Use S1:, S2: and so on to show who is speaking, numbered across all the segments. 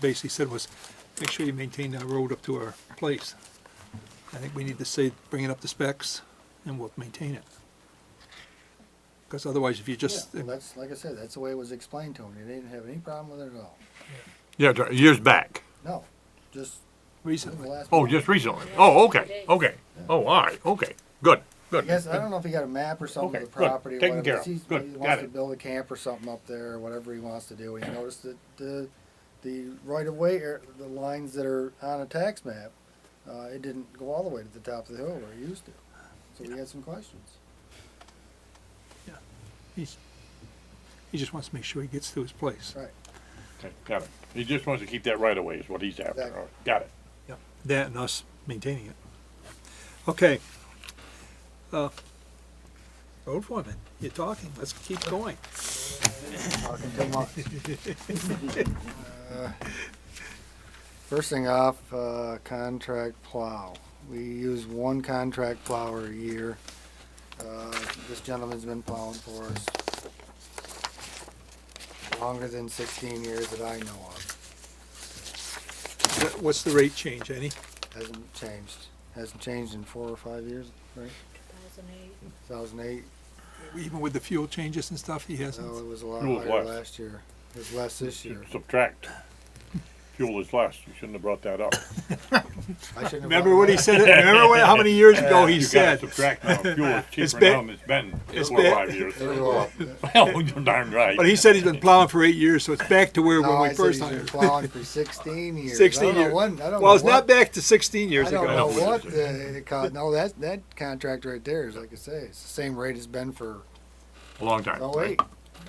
S1: basically said was, make sure you maintain our road up to our place. I think we need to say, bring it up to specs, and we'll maintain it. Because otherwise, if you just,
S2: Yeah, well, that's, like I said, that's the way it was explained to me. They didn't have any problem with it at all.
S3: Yeah, dr- years back.
S2: No, just the
S1: recently,
S2: last.
S3: Oh, just recently. Oh, okay, okay. Oh, all right, okay. Good,
S2: I
S3: good.
S2: guess, I don't know if he got a map or something of
S3: Okay,
S2: the
S3: good.
S2: property. or
S3: Taken
S2: whatever,
S3: care
S2: but
S3: of.
S2: he's-
S3: Good.
S2: He
S3: Got
S2: wants to
S3: it.
S2: build a camp or something up there, or whatever he wants to do. He noticed that the, the right of way, or the lines that are on a tax map, uh, it didn't go all the way to the top of the hill where it used to. So we had some questions.
S1: he's, he just wants to make sure he gets to his place.
S2: Right.
S3: Okay, Got it. He just wants to keep that right away is what he's after.
S2: Exactly.
S3: All right, Got it.
S1: Yeah, That and us maintaining it. Okay. Uh, Road foreman, you're talking, let's keep going.
S2: Talking too much. Uh, First thing off, uh, contract plow. We use one contract plower a year. Uh, This gentleman's been plowing for us longer than sixteen years that I know of.
S1: What- What's the rate change, any?
S2: Hasn't changed. Hasn't changed in four or five years, right?
S4: 2008.
S2: Two thousand eight,
S1: Even with the fuel changes and stuff, he
S2: no,
S1: hasn't?
S2: it was a lot
S3: It was
S2: higher
S3: less.
S2: last year. It was less this year.
S3: Subtract. Fuel is less. You shouldn't have brought that up.
S2: I shouldn't have
S1: Remember
S2: brought
S1: what
S2: it
S1: he
S2: up.
S1: said, remember what- how many years ago he
S3: You gotta
S1: said?
S3: Subtract now. Fuel is
S1: It's
S3: cheaper now
S1: been-
S3: than it's been
S1: it's
S3: four or
S1: been-
S3: five years.
S2: It'll go up.
S3: Well, you're darn right.
S1: But he said he's been plowing for eight years, so it's back to where
S2: No,
S1: when
S2: Oh, I
S1: we
S2: said
S1: first
S2: he's been
S1: hired.
S2: plowing for sixteen years. I
S1: 16
S2: don't know
S1: years.
S2: when- I don't
S1: Well,
S2: know
S1: it's not
S2: what-
S1: back to sixteen years
S2: I don't know
S1: ago.
S3: ago.
S2: what the, it co- no, that, that contract right there is, like I say, it's the same rate it's been for,
S3: A long time.
S2: oh wait,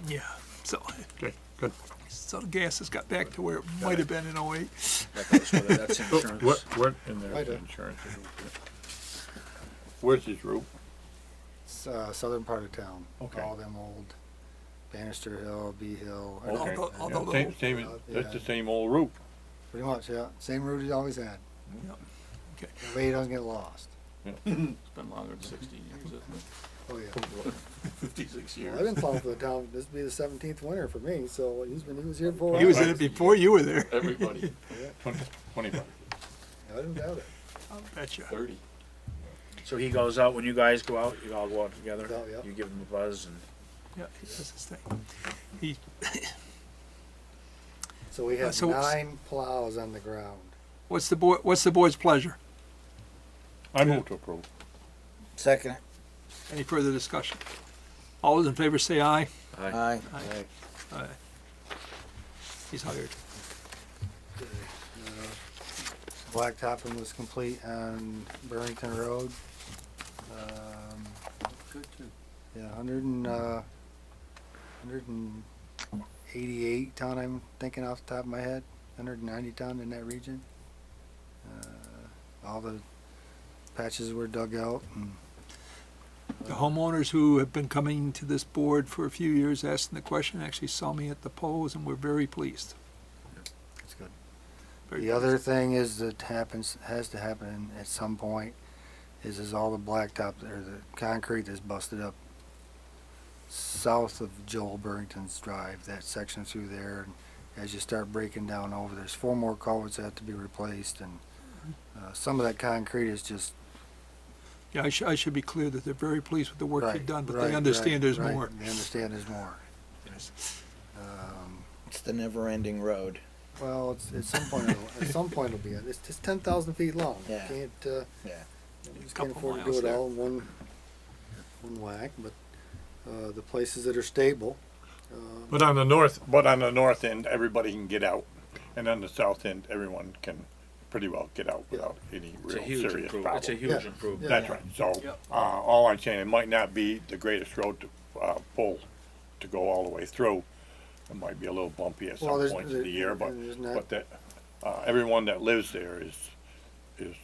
S1: Yeah, so,
S3: Okay, good.
S1: so the gas has got back to where it might have been in oh eight.
S5: That goes whether that's insurance.
S3: What, what in
S2: Right
S3: there?
S2: there.
S3: Insurance. Where's his roof?
S2: it's, uh, southern part of town.
S3: Okay.
S2: All them old Bannister Hill, B Hill, or-
S3: Okay.
S1: Although-
S3: yeah,
S1: although-
S3: Same, same,
S2: Oh,
S3: that's the same old roof.
S2: pretty much, yeah, same route he's always had.
S1: Yep. Okay.
S2: That way he doesn't get lost.
S5: It's been longer than sixteen years, isn't
S2: Oh, yeah.
S5: it? Fifty-six
S2: Well,
S5: years.
S2: I've been plowing for the town, this would be the seventeenth winter for me, so he's been, he was here before.
S1: He
S2: I
S1: was in it before you were there.
S5: Everybody,
S3: Twenty, twenty-five.
S2: I didn't doubt it.
S1: Betcha.
S5: thirty.
S6: So he goes out, when you guys go out, you all go out together?
S2: Go out, yeah.
S6: You give him a buzz and
S1: Yeah, he does his thing. He,
S2: So we
S1: Uh,
S2: have
S1: so-
S2: nine plows on the ground.
S1: what's the boy, what's the boy's pleasure?
S3: I move to approve.
S5: Second.
S1: Any further discussion? All those in favor say aye.
S5: Aye.
S1: Aye. He's hired.
S2: Blacktopping was complete on Burlington Road. Um,
S5: Good too.
S2: Yeah, hundred and, uh, hundred and eighty-eight ton, I'm thinking off the top of my head, hundred and ninety ton in that region. Uh, All the patches were dug out and,
S1: The homeowners who have been coming to this board for a few years asking the question actually saw me at the polls and were very pleased.
S2: it's good.
S1: Very
S2: The other thing is that happens, has to happen at some point, is is all the blacktop or the concrete that's busted up south of Joel Burrington's Drive, that section through there. and As you start breaking down over, there's four more culverts that have to be replaced and, uh, some of that concrete is just.
S1: Yeah, I should, I should be clear that they're very pleased with the work you've
S2: Right,
S1: done, but
S2: right,
S1: they understand
S2: right,
S1: there's
S2: right.
S1: more.
S2: They understand there's more.
S1: Yes.
S2: Um,
S5: It's the never-ending road.
S2: well, it's, at some point, it'll- at some point it'll be, it. it's, it's ten thousand feet long. You
S5: Yeah.
S2: Can't, uh,
S5: Yeah.
S2: We just can't
S1: Couple
S2: afford to
S1: miles
S2: do it
S1: there.
S2: all in one, one whack, but, uh, the places that are stable, uh,
S3: But on the north, but on the north end, everybody can get out, and on the south end, everyone can pretty well get out without any
S6: it's a
S3: real
S6: huge
S3: serious
S6: improvement, it's a
S3: problem.
S6: huge
S2: Yeah.
S6: improvement.
S3: That's right, so, uh, all I'm saying, it might not be the greatest road to, uh, pull, to go all the way through. It might be a little bumpy at
S2: Well,
S3: some
S2: there's-
S3: points of the year, but,
S2: there's not-
S3: but that, uh, everyone that lives there is, is,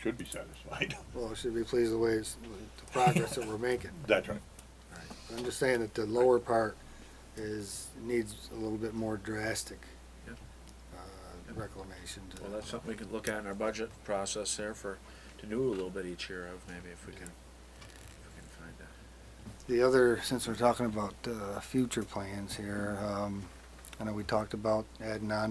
S3: should be satisfied.
S2: well, should be pleased the ways, the progress that we're making.
S3: That's right.
S2: I'm just saying that the lower part is, needs a little bit more drastic,
S6: Yeah.
S2: uh, reclamation to.
S6: Well, that's something we could look at in our budget process there for, to do a little bit each year of, maybe if we can, if we can find that.
S2: The other, since we're talking about uh, future plans here, um, I know we talked about adding on